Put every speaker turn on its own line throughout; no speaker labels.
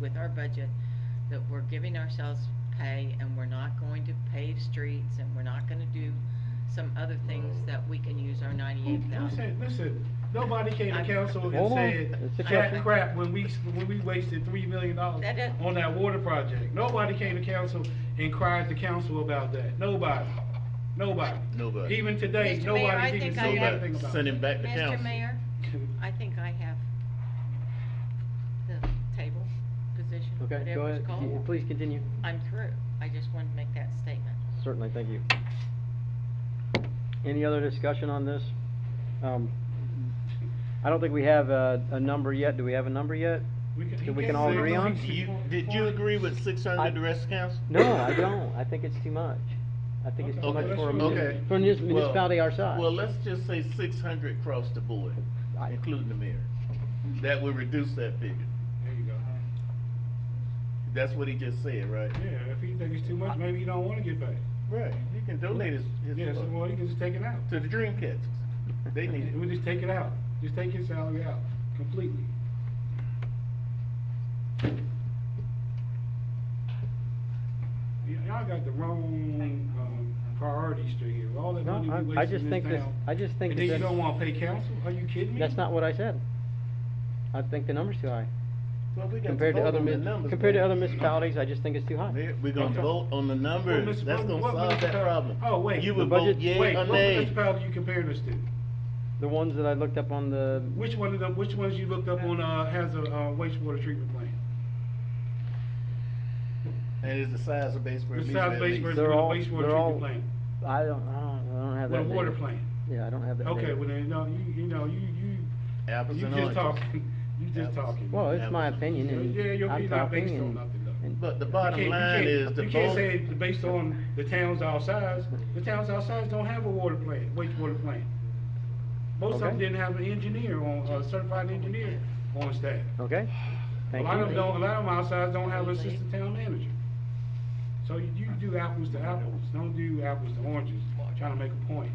with our budget that we're giving ourselves pay and we're not going to pave streets and we're not gonna do some other things that we can use our ninety-eight
Listen,
thousand.
listen, nobody came to
I'm-
council and
Hold on.
said,
It's a
that
question.
crap when we, when we wasted three million dollars
That is-
on that water project. Nobody came to council and cried to council about that. Nobody. Nobody.
Nobody.
Even today,
Mr. Mayor, I
nobody's even
think I
saying
have-
anything about
Send
it.
him back to council.
Mr. Mayor, I think I have the table position,
Okay, go
whatever
ahead,
it's called.
Y- please continue,
I'm through. I just wanted to make that statement.
certainly, thank you. Any other discussion on this? Um, I don't think we have a, a number yet, do we have a number yet?
he
that we
can't
can all
say
agree on?
six
You,
point
did you
four.
agree with six
I-
hundred, the rest of council?
No, I don't, I think it's too much, I think it's too
Okay.
much for a
Okay.
muni-
Okay.
for a munis-
Well-
municipality our size.
Well, let's just say six hundred across the board,
I-
including the mayor. That would reduce that figure.
There you go.
That's what he just said, right?
Yeah, if he thinks it's too much, maybe he don't wanna get back.
Right, he can donate his,
Yeah,
his
so well,
fund
he can just take it out.
to the dream catchers. They need
We
it.
just take it out. Just take his salary out completely. Y- Y'all got the wrong, um, priorities straight here. All that
No,
money
I-
we
I
wasting
just
in
think this-
town,
I just think
And
that
then you
that's-
don't wanna pay council? Are you kidding me?
That's not what I said, I think the number's too high,
Well, we got
compared to
vote
other,
on the
mun-
numbers,
compared to
man.
other municipalities, I just think it's too high.
Mayor, We're gonna
Okay.
vote on the
Well,
numbers.
Mr.
That's
Bowden,
gonna
what
solve that
municipal-
problem.
Oh, wait.
You
The
would vote
budget-
yay
Wait,
or
what
nay.
municipality you comparing us to?
The ones that I looked up on the,
Which one of the, which ones you looked up on, uh, has a, uh, wastewater treatment plant?
And it's the size of base where it
The
meets
South
at
Base
least.
versus
They're
with a
all-
wastewater
they're all-
treatment plant.
I don't, I don't, I don't have
With
that
a water
data.
plant.
Yeah, I don't have that
Okay,
data.
well, then, no, you, you know, you, you,
Apples
you
and
just
oranges.
talking, you just
Apples.
talking.
Well, it's
Yeah,
my
but-
opinion, and
Yeah, your
I'm
opinion not based
talking,
on
and-
nothing, though.
and-
But the
You can't-
bottom
you
line
can't-
is the
You can't
vote.
say it's based on the towns our size, the towns our size don't have a water plant, wastewater plant. Most of them
Okay.
didn't have an engineer on, a certified engineer on staff.
Okay,
A
thank
lot of them
you.
don't, a lot of them our size don't have an assistant town manager. So you, you do apples to apples, don't do apples to oranges, trying to make a point,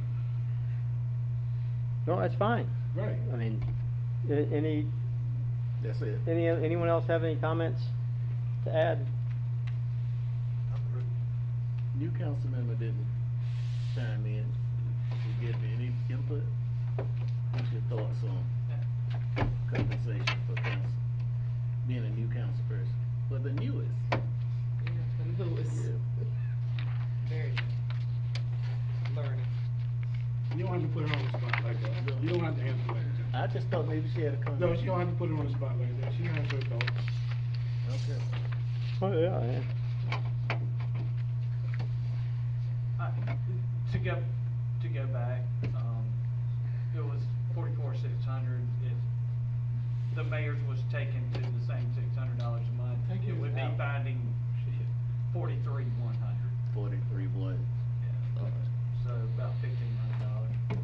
No, that's fine,
right?
I mean, a- any,
That's it.
any, anyone else have any comments to add? Uh,
New council member didn't chime in to give me any input. What's your thoughts on compensation for council, being a new council person? Well, the newest.
Lewis. Very good. learning.
You don't have to put her on the spot like that. You don't have to answer like
I just thought maybe she had a
that.
comment.
No, she don't have to put her on the spot like that. She has her thoughts.
Okay.
Oh, yeah, yeah.
I- Uh, To go, to go back, um, it was forty-four, six hundred, if the mayor's was taken to the same six hundred dollars a month,
Take
it
it
would be
out.
finding forty-three, one hundred.
Forty-three one.
Yeah,
Okay.
so about fifteen hundred dollars.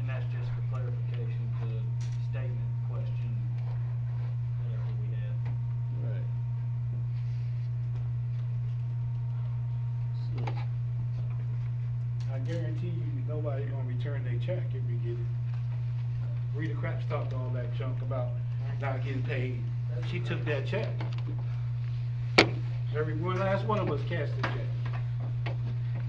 And that's just for clarification to statement, question, whatever we have.
Right. So,
I guarantee you, nobody gonna return their check if you get it. Rita Craps talked all that junk about not getting paid. She took that check. Every, one last one of us cashed the check.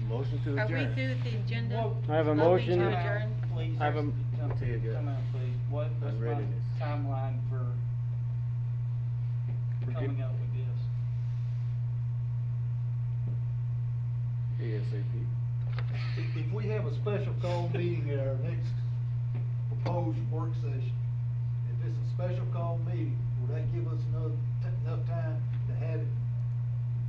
motion to
Are
adjourn.
we through with the agenda?
I have a
Voting to
motion.
adjourn?
Please,
I have a-
come,
Tell you good.
come out, please. What, what's
ready
my
this.
timeline for
We're
coming
getting-
up with this?
ASAP.
If- If we have a special call meeting at our next proposed work session, if it's a special call meeting, will that give us enough, enough time to have it,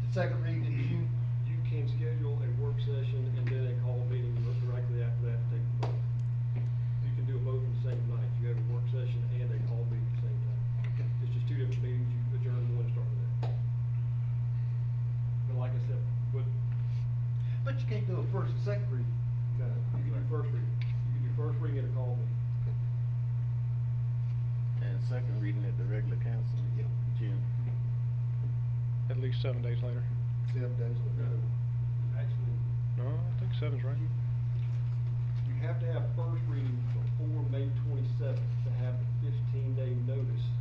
the second reading in June?
You can schedule a work session and then a call meeting directly after that to take the vote. You can do a vote in the same night, you have a work session and a call meeting at the same time. It's just two different meetings, you adjourn one and start the next. But like I said, but
But you can't do a first and second reading.
no, you can do first reading, you can do first reading and a call meeting.
And second reading at the regular council, meeting, June.
At least seven days later.
Seven days
No,
later.
actually,
No, I think seven's right.
you have to have first reading before May twenty-seventh to have the fifteen-day notice